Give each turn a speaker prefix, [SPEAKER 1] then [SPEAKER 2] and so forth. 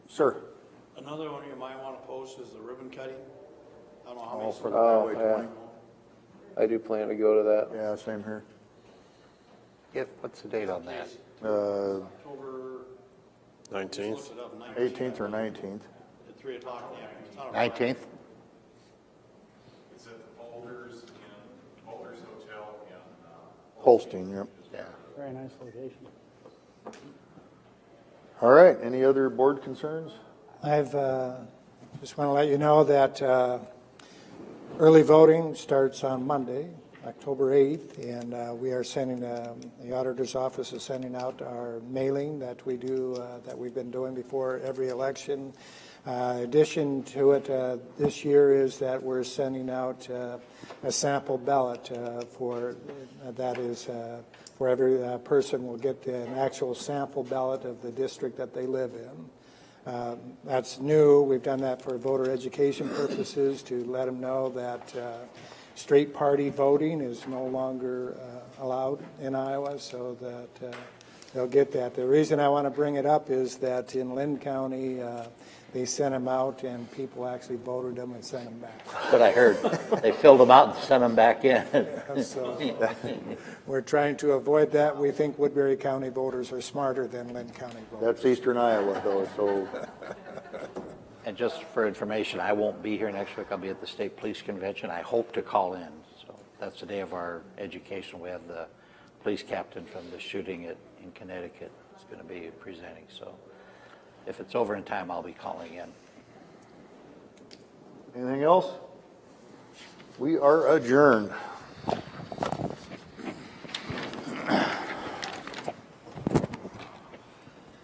[SPEAKER 1] Sir,
[SPEAKER 2] Another one you might want to post is the ribbon cutting. I don't know how
[SPEAKER 1] all
[SPEAKER 2] many.
[SPEAKER 1] for the
[SPEAKER 3] Oh,
[SPEAKER 1] Highway
[SPEAKER 3] yeah.
[SPEAKER 1] 20.
[SPEAKER 3] I do plan to go to that.
[SPEAKER 1] Yeah, same here.
[SPEAKER 4] If, what's the date on that?
[SPEAKER 1] Uh,
[SPEAKER 2] October, just
[SPEAKER 5] 19th.
[SPEAKER 2] looked it up,
[SPEAKER 1] 18th or
[SPEAKER 2] I
[SPEAKER 1] 19th.
[SPEAKER 2] think, At three o'clock in the afternoon. It's on a Friday.
[SPEAKER 4] Nineteenth?
[SPEAKER 6] It's at the Boulders in, Boulders Hotel in, uh,
[SPEAKER 1] Holstein, yep.
[SPEAKER 4] Yeah.
[SPEAKER 7] Very nice location.
[SPEAKER 1] All right, any other board concerns?
[SPEAKER 7] I've, uh, just want to let you know that uh, early voting starts on Monday, October 8th, and uh, we are sending, um, the auditor's office is sending out our mailing that we do, uh, that we've been doing before every election. Uh, Addition to it, uh, this year is that we're sending out uh, a sample ballot uh, for, that is, uh, for every uh, person will get an actual sample ballot of the district that they live in. Uh, That's new. We've done that for voter education purposes to let them know that uh, straight party voting is no longer uh, allowed in Iowa, so that uh, they'll get that. The reason I want to bring it up is that in Lynn County, uh, they sent them out and people actually voted them and sent them back.
[SPEAKER 4] What I heard. They filled them out and sent them back in.
[SPEAKER 7] So we're trying to avoid that. We think Woodbury County voters are smarter than Lynn County voters.
[SPEAKER 1] That's Eastern Iowa though, so,
[SPEAKER 4] And just for information, I won't be here next week. I'll be at the state police convention. I hope to call in. So that's the day of our education. We have the police captain from the shooting at, in Connecticut is going to be presenting. So if it's over in time, I'll be calling in.
[SPEAKER 1] anything else? We are adjourned.